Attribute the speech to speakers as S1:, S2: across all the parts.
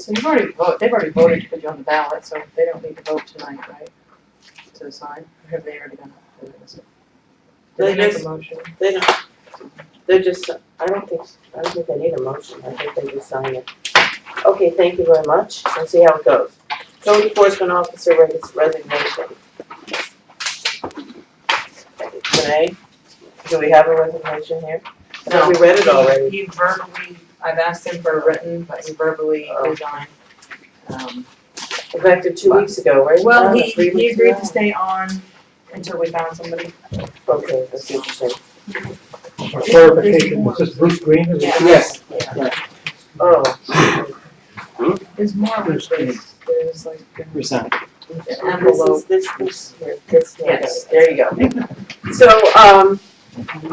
S1: So you've already voted, they've already voted to put you on the ballot, so they don't need to vote tonight, right? To sign, or have they already done it? Did
S2: They
S1: make a
S2: just-
S1: motion?
S2: They don't, they're just, I don't think, I don't think they need a motion, I think they just sign it. Okay, thank you very much, let's see how it goes. Code enforcement officer res- resignation. Renee, do we have a resignation here? I thought We read it already.
S1: He verbally, I've asked him for a written, but he verbally
S2: Oh.
S1: resigned. Um,
S2: Effective two weeks ago, right?
S1: Well, he,
S2: Three
S1: he
S2: weeks
S1: agreed
S2: ago?
S1: to stay on until we found somebody.
S2: Okay, that's interesting.
S3: For clarification, was this Bruce Green? Is it-
S2: Yes. Oh,
S1: There's more of this, there's like an
S4: Resign.
S2: and this
S1: envelope.
S2: is, this, this, here, this,
S1: Yes.
S2: yes, there you go. So, um,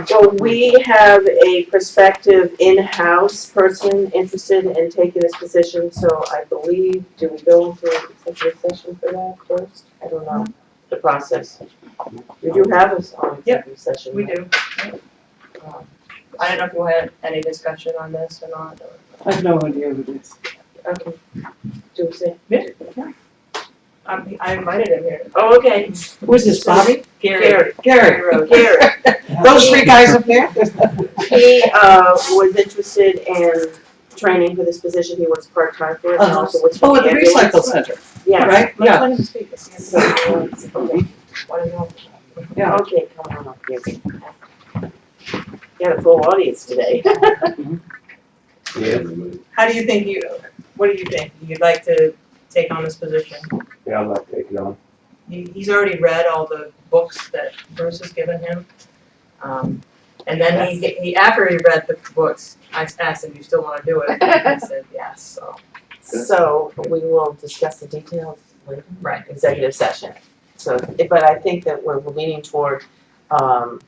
S2: so we have a prospective in-house person interested in taking this position, so I believe, do we go into executive session for that first? I don't know, the process. We do have us on executive session.
S1: We do. Um, I don't know if you had any discussion on this or not, or.
S4: I have no idea who it is.
S2: Okay. Do we say?
S1: Um, I invited him here.
S2: Oh, okay.
S4: Who's this, Bobby?
S2: Gary.
S4: Gary.
S1: Rhodes.
S2: Gary.
S4: Those three guys up there?
S2: He uh, was interested in training for this position. He works part-time for it and also works
S4: Oh,
S2: for
S4: at
S2: the
S4: the
S2: ambulance.
S4: recycle center,
S2: Yes.
S4: right?
S1: Let's let him speak. Let's see if he-
S2: Okay,
S1: Why don't you want-
S4: Yeah.
S2: okay, come on up here. Got a full audience today.
S5: Yeah,
S1: How do you think you, what do you think? You'd like to take on this position?
S5: yeah, I'm not taking on.
S1: He, he's already read all the books that Bruce has given him. Um, and then he, he, after he read the books, I asked him, you still wanna do it? And he said, yes, so.
S2: So we will discuss the details later.
S1: Right.
S2: Executive session. So, but I think that we're leaning toward um,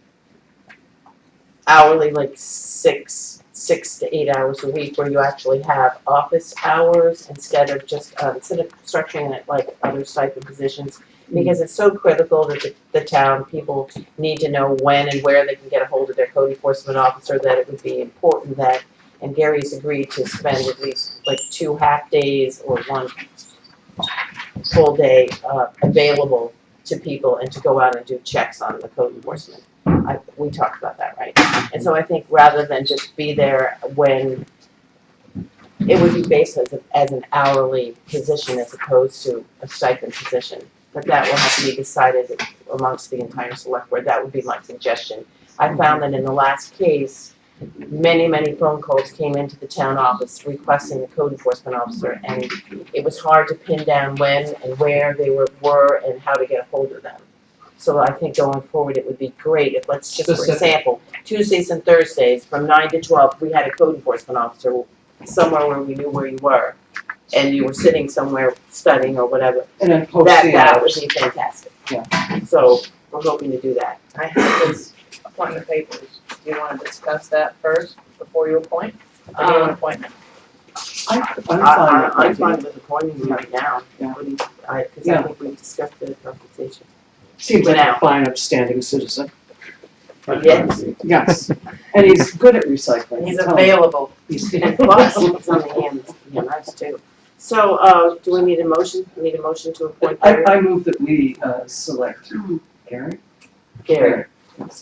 S2: hourly, like six, six to eight hours a week where you actually have office hours instead of just, uh, instead of structuring it like other stipend positions. Because it's so critical that the, the town people need to know when and where they can get a hold of their code enforcement officer, that it would be important that, and Gary's agreed to spend at least like two half days or one full day uh, available to people and to go out and do checks on the code enforcement. I, we talked about that, right? And so I think rather than just be there when, it would be based as, a- as an hourly position as opposed to a stipend position. But that will have to be decided amongst the entire select board, that would be my suggestion. I found that in the last case, many, many phone calls came into the town office requesting the code enforcement officer and it was hard to pin down when and where they were, were and how to get a hold of them. So I think going forward, it would be great if, let's just, for
S4: Specific.
S2: example, Tuesdays and Thursdays from nine to twelve, we had a code enforcement officer somewhere where we knew where you were and you were sitting somewhere studying or whatever,
S4: And then post
S2: that,
S4: the
S2: that would
S4: hours.
S2: be fantastic. Yeah. So we're hoping to do that.
S1: I have his appointment papers. Do you wanna discuss that first before you appoint? Or do you want
S2: Um,
S1: an appointment?
S4: I'm
S2: I, I, I'm
S4: fine with
S2: fine with appointing you right now.
S4: Yeah.
S2: What do you- I, cause I
S4: Yeah.
S2: think we discussed the compensation.
S4: it. Seems like
S2: Now.
S4: a fine upstanding citizen.
S2: Yes.
S4: Yes. And he's good at recycling.
S1: He's
S4: I'm telling you.
S1: available.
S4: He's-
S2: And plus, it's on the hands, yeah, nice too. So, uh, do we need a motion, We need a motion to appoint
S4: I,
S2: Gary,
S4: I move that we, uh, select Gary,
S2: Gary,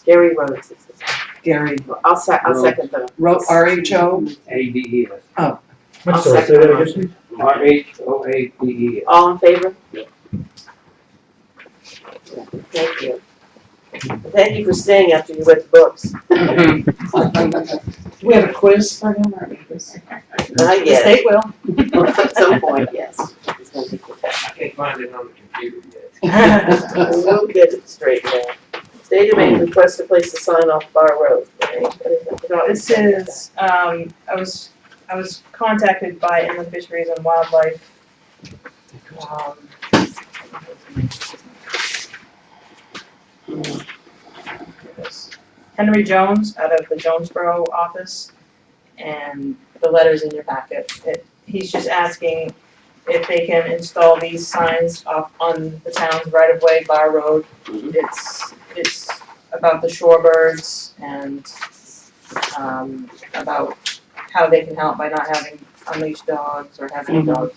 S2: Gary Rhodes is his name.
S4: Gary,
S2: I'll se- I'll
S5: Rhodes.
S2: second the,
S4: Ro, R H O,
S5: A D E S.
S3: I'm sorry, say that again, please.
S5: R H O A D E S.
S2: all in favor?
S5: Yeah.
S2: Thank you. Thank you for staying after you read the books.
S4: we have a quiz for him, or?
S2: I
S4: The
S2: guess,
S4: state will.
S2: at some point, yes. It's gonna be good.
S5: I can't find it on the computer yet.
S2: We'll get it straightened out. State of Maine request to place a sign off Bar Road.
S1: This is, um, I was, I was contacted by inland fisheries and wildlife. Um, Henry Jones out of the Jonesboro office, and the letter's in your packet. It, he's just asking if they can install these signs off on the town's right of way, Bar Road. It's, it's about the shorebirds and um, about how they can help by not having
S4: unleashed dogs or have any
S1: Mhm.
S4: dogs